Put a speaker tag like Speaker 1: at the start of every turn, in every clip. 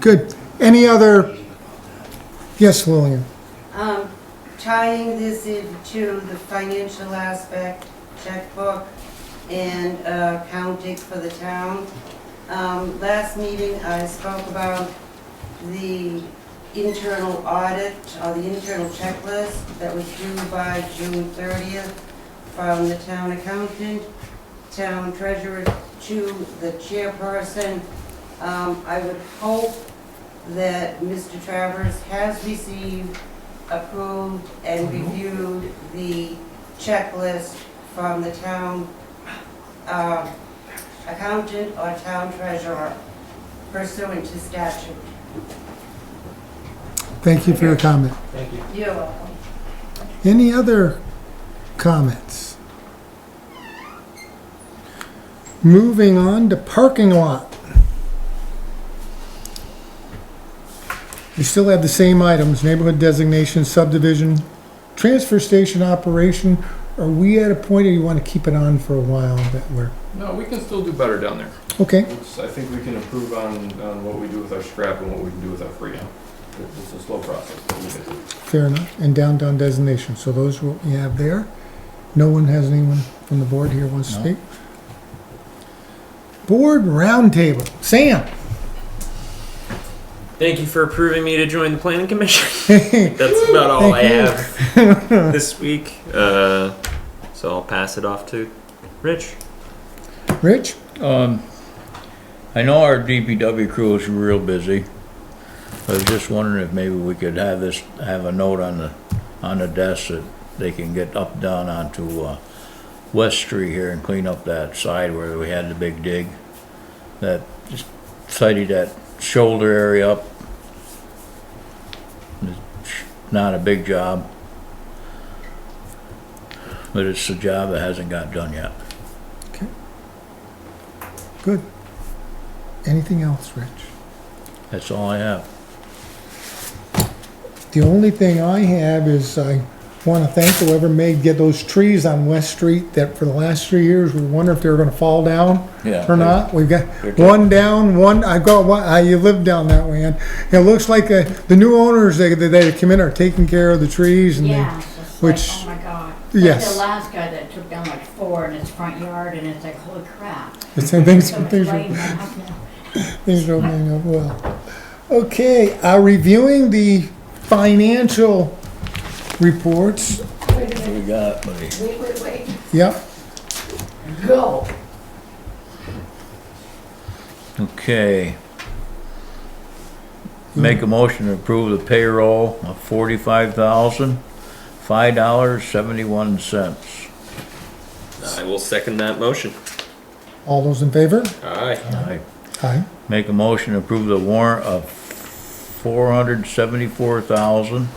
Speaker 1: Good. Any other? Yes, Lillian.
Speaker 2: Um, tying this into the financial aspect, checkbook and uh, accounting for the town. Um, last meeting, I spoke about the internal audit or the internal checklist that was due by June thirtieth from the town accountant, town treasurer to the chairperson. Um, I would hope that Mr. Travers has received approved and reviewed the checklist from the town uh, accountant or town treasurer pursuant to statute.
Speaker 1: Thank you for your comment.
Speaker 3: Thank you.
Speaker 2: You're welcome.
Speaker 1: Any other comments? Moving on to parking lot. We still have the same items, neighborhood designation, subdivision, transfer station operation. Are we at a point or you want to keep it on for a while that we're,
Speaker 3: No, we can still do better down there.
Speaker 1: okay?
Speaker 3: It's- I think we can improve on, on what we do with our scrap and what we can do with our freon. It- It's a slow process, but we can.
Speaker 1: Fair enough, and downtown designation, so those will, you have there. No one has anyone from the board here wants to
Speaker 4: No.
Speaker 1: speak? Board roundtable, Sam,
Speaker 5: Thank you for approving me to join the planning commission. That's about all I have this week. Uh, so I'll pass it off to Rich.
Speaker 1: Rich,
Speaker 4: Um, I know our DPW crew is real busy. I was just wondering if maybe we could have this, have a note on the, on the desk that they can get up, down onto, uh, West Street here and clean up that side where we had the big dig. That, just tidy that shoulder area up. It's Not a big job. But it's a job that hasn't got done yet.
Speaker 1: good. Anything else, Rich?
Speaker 4: That's all I have.
Speaker 1: The only thing I have is I want to thank whoever made, get those trees on West Street that for the last three years, we wonder if they were going to fall down.
Speaker 4: Yeah.
Speaker 1: or not. We've got
Speaker 4: They're good.
Speaker 1: one down, one, I've got one, I, you live down that way, and it looks like uh, the new owners, they, they- they come in, are taking care of the trees and they,
Speaker 6: Yeah, it's just like,
Speaker 1: which-
Speaker 6: oh my god. Like
Speaker 1: yes.
Speaker 6: The last guy that took down like four in his front yard and it's like, holy crap.
Speaker 1: the same things,
Speaker 6: So much
Speaker 1: things are,
Speaker 6: light in my house now.
Speaker 1: things are opening up well. Okay, uh, reviewing the financial reports,
Speaker 4: We got, buddy.
Speaker 1: yep,
Speaker 4: Okay. Make a motion to approve the payroll of forty-five thousand, five dollars, seventy-one cents.
Speaker 5: I will second that motion.
Speaker 1: all those in favor?
Speaker 5: Aye.
Speaker 4: I
Speaker 1: Aye.
Speaker 4: make a motion to approve the warrant of four hundred seventy-four thousand,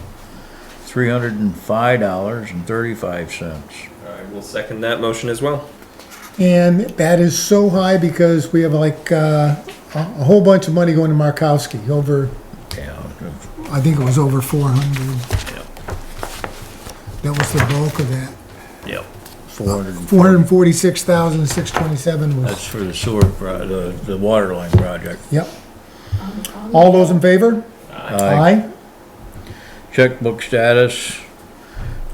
Speaker 4: three hundred and five dollars and thirty-five cents.
Speaker 5: I will second that motion as well.
Speaker 1: And that is so high because we have like, uh, a, a whole bunch of money going to Markowski, over,
Speaker 4: Yeah,
Speaker 1: I think it was over four hundred,
Speaker 4: yep,
Speaker 1: that was the bulk of that.
Speaker 4: yep. Four hundred,
Speaker 1: Four hundred and forty-six thousand, six twenty-seven was,
Speaker 4: that's for the sewer, pro- the, the water line project.
Speaker 1: yep. All those in favor?
Speaker 4: Aye. Checkbook status,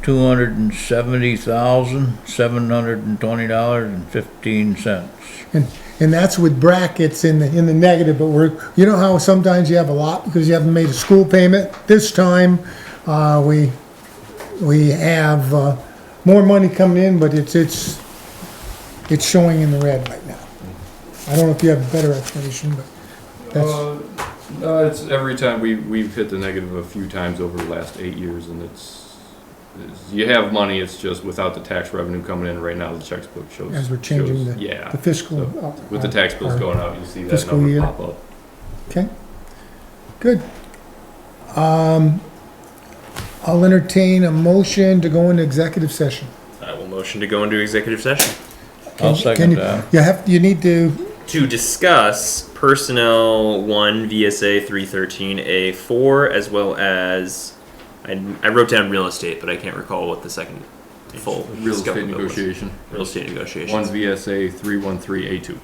Speaker 4: two hundred and seventy thousand, seven hundred and twenty dollars and fifteen cents.
Speaker 1: And, and that's with brackets in the, in the negative, but we're, you know how sometimes you have a lot because you haven't made a school payment? This time, uh, we, we have, uh, more money coming in, but it's, it's, it's showing in the red right now. I don't know if you have a better explanation, but that's,
Speaker 3: Uh, no, it's every time, we, we've hit the negative a few times over the last eight years and it's, it's- you have money, it's just without the tax revenue coming in right now, the checkbook shows.
Speaker 1: As we're changing
Speaker 3: shows-
Speaker 1: the-
Speaker 3: Yeah,
Speaker 1: the fiscal. uh,
Speaker 3: with the tax bills going out, you see that
Speaker 1: Fiscal year.
Speaker 3: number pop up.
Speaker 1: Okay, good. Um, I'll entertain a motion to go into executive session.
Speaker 5: I will motion to go into executive session
Speaker 4: I'll
Speaker 1: Can you- can
Speaker 4: second
Speaker 1: you-
Speaker 4: that.
Speaker 1: You have, you need to,
Speaker 5: to discuss personnel 1 VSA 313A4 as well as I, I wrote down real estate, but I can't recall what the second full
Speaker 3: Real
Speaker 5: scope
Speaker 3: estate
Speaker 5: of it was.
Speaker 3: negotiation,
Speaker 5: Real estate negotiations.
Speaker 3: one VSA three one three A two.